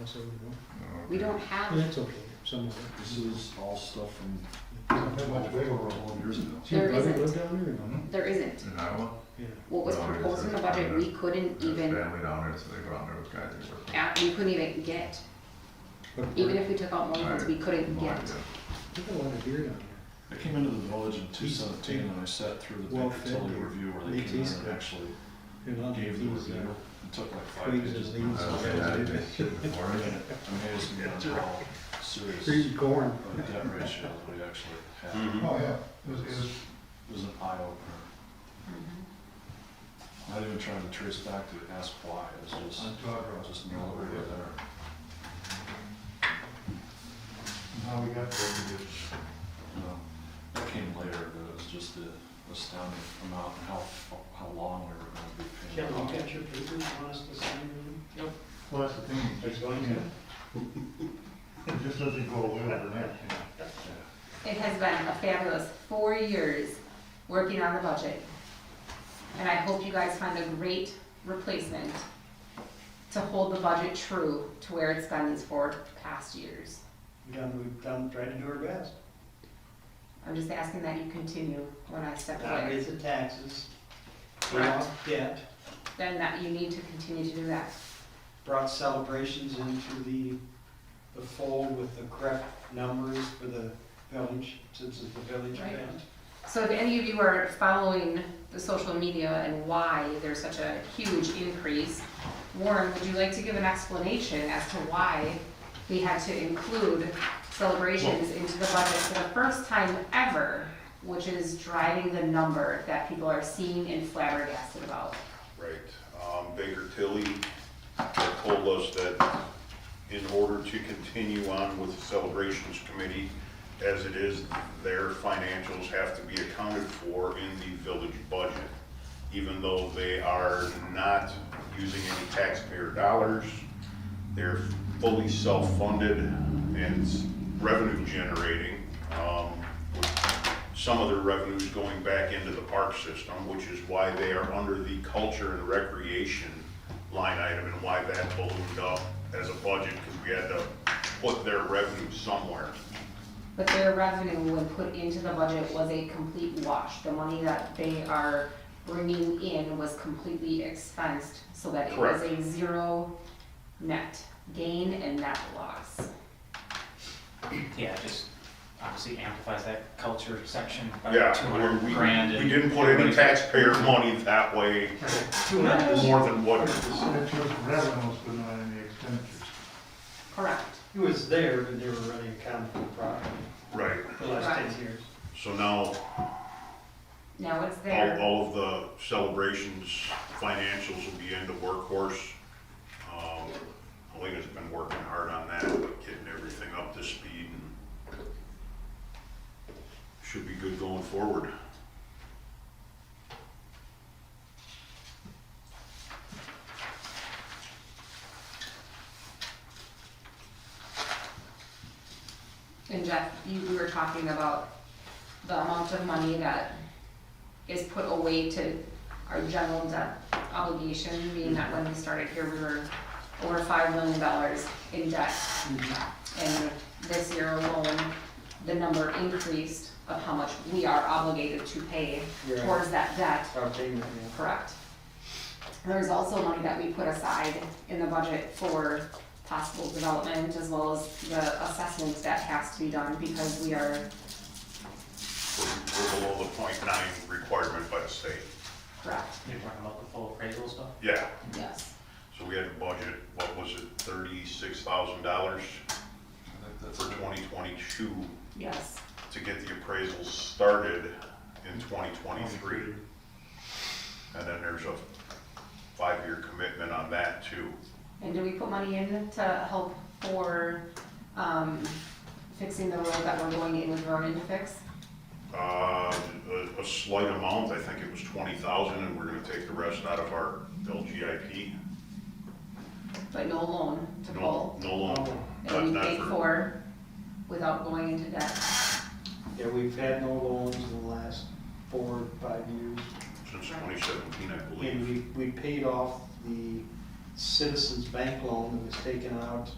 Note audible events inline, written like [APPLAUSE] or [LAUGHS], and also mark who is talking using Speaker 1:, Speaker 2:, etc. Speaker 1: else I would know.
Speaker 2: We don't
Speaker 1: But
Speaker 2: have,
Speaker 1: that's okay, somewhere.
Speaker 3: This is all stuff from
Speaker 4: much
Speaker 3: twelve,
Speaker 4: bigger.
Speaker 3: twelve years ago.
Speaker 1: Does your
Speaker 2: There
Speaker 1: brother
Speaker 2: isn't.
Speaker 1: live down there or not?
Speaker 2: there isn't.
Speaker 5: In Iowa?
Speaker 1: Yeah.
Speaker 2: What was proposed in the budget, we couldn't
Speaker 5: There's
Speaker 2: even,
Speaker 5: family down there, so they go out there with guys they work with.
Speaker 2: at- we couldn't even get,
Speaker 1: But
Speaker 2: even if we took out more funds, we couldn't
Speaker 5: No
Speaker 2: get.
Speaker 5: idea.
Speaker 1: There's a lot of deer down
Speaker 4: I came into the village in two seventeen and I sat through the
Speaker 1: Well,
Speaker 4: big utility
Speaker 1: fed.
Speaker 4: review where
Speaker 1: They
Speaker 4: they came in
Speaker 1: taste
Speaker 4: and
Speaker 1: good.
Speaker 4: actually
Speaker 1: there. There are a lot of
Speaker 4: gave the
Speaker 1: things
Speaker 4: review.
Speaker 1: that-
Speaker 4: It took like five
Speaker 1: Twigs
Speaker 4: pages.
Speaker 1: and
Speaker 4: I mean,
Speaker 1: leaves.
Speaker 5: I don't think I did this shit before.
Speaker 4: it was how
Speaker 3: [LAUGHS]
Speaker 4: serious
Speaker 1: Free corn.
Speaker 4: of a debt ratio that we actually had.
Speaker 3: Oh, yeah.
Speaker 4: It was, it was- it was an eye opener.
Speaker 2: Mm-hmm.
Speaker 4: Not even trying to trace back to ask why, it was just, just know that we were there.
Speaker 3: Now we got
Speaker 4: you know, That came later, but it was just the astounding amount and how, how long we were gonna be paying.
Speaker 6: Can
Speaker 4: off.
Speaker 6: we get your papers you want us to sign them? Yep.
Speaker 3: Well, that's the thing.
Speaker 6: Are you going to?
Speaker 3: It just doesn't go away overnight.
Speaker 2: It has been a fabulous four years working on the budget. And I hope you guys find a great replacement to hold the budget true to where it's been these four past years.
Speaker 6: We've done, we've done, tried to do our best.
Speaker 2: I'm just asking that you continue when I step
Speaker 6: Not
Speaker 2: away,
Speaker 6: raise the taxes.
Speaker 2: Correct.
Speaker 6: Brought debt,
Speaker 2: then that you need to continue to do that.
Speaker 6: brought celebrations into the, the fold with the correct numbers for the village, since it's the village
Speaker 2: Right.
Speaker 6: event.
Speaker 2: So if any of you are following the social media and why there's such a huge increase, Warren, would you like to give an explanation as to why we had to include celebrations into the budget for the first time ever, which is driving the number that people are seeing and flabbergasted about?
Speaker 7: Right, um, Baker Tilly told us that in order to continue on with the celebrations committee, as it is, their financials have to be accounted for in the village budget. Even though they are not using any taxpayer dollars, they're fully self-funded and revenue generating. Um, some of their revenues going back into the park system, which is why they are under the culture and recreation line item and why that ballooned up as a budget, because we had to put their revenue somewhere.
Speaker 2: But their revenue when put into the budget was a complete wash. The money that they are bringing in was completely expensed, so that it was a zero net gain and net loss.
Speaker 8: Yeah, it just obviously amplifies that culture section by
Speaker 7: Yeah,
Speaker 8: two
Speaker 7: we-
Speaker 8: hundred
Speaker 7: we-
Speaker 8: grand.
Speaker 7: We
Speaker 8: and
Speaker 7: didn't put any
Speaker 8: everybody-
Speaker 7: taxpayer money that way, more than what,
Speaker 3: Expenditures, revenues, but not any expenditures.
Speaker 2: Correct.
Speaker 6: It was there, but they were really accounted for properly
Speaker 7: right.
Speaker 6: the last ten years.
Speaker 7: So now
Speaker 2: Now it's
Speaker 7: all,
Speaker 2: there.
Speaker 7: all of the celebrations financials will be into workhorse. Um, Helena's been working hard on that, getting everything up to speed and should be good going forward.
Speaker 2: And Jeff, you, we were talking about the amount of money that is put away to our general debt obligation, being that when we started here, we were over five million dollars in debt.
Speaker 6: Mm-hmm.
Speaker 2: And this year alone, the number increased of how much we are obligated to pay
Speaker 6: Yeah.
Speaker 2: towards that debt.
Speaker 6: Our payment, yeah.
Speaker 2: Correct. There's also money that we put aside in the budget for possible development as well as the assessment that has to be done because we are,
Speaker 7: We're we're below the point nine requirement by the state.
Speaker 2: correct,
Speaker 8: You're talking about the full appraisal stuff?
Speaker 7: Yeah,
Speaker 2: yes.
Speaker 7: so we had to budget, what was it, thirty-six thousand dollars
Speaker 4: I think that's
Speaker 7: for
Speaker 4: it.
Speaker 7: twenty twenty-two
Speaker 2: Yes,
Speaker 7: to get the appraisals started in twenty twenty-three. And then there's a five-year commitment on that too.
Speaker 2: and do we put money in to help for, um, fixing the road that we're going in with Vernon to fix?
Speaker 7: Uh, a, a slight amount, I think it was twenty thousand, and we're gonna take the rest out of our LGIP.
Speaker 2: But no loan to
Speaker 7: No,
Speaker 2: pull,
Speaker 7: no loan. Not-
Speaker 2: and we
Speaker 7: not
Speaker 2: paid
Speaker 7: for-
Speaker 2: for without going into debt.
Speaker 6: Yeah, we've had no loans in the last four, five years.
Speaker 7: Since twenty seventeen, I believe.
Speaker 6: And we, we paid off the Citizens Bank loan that was taken out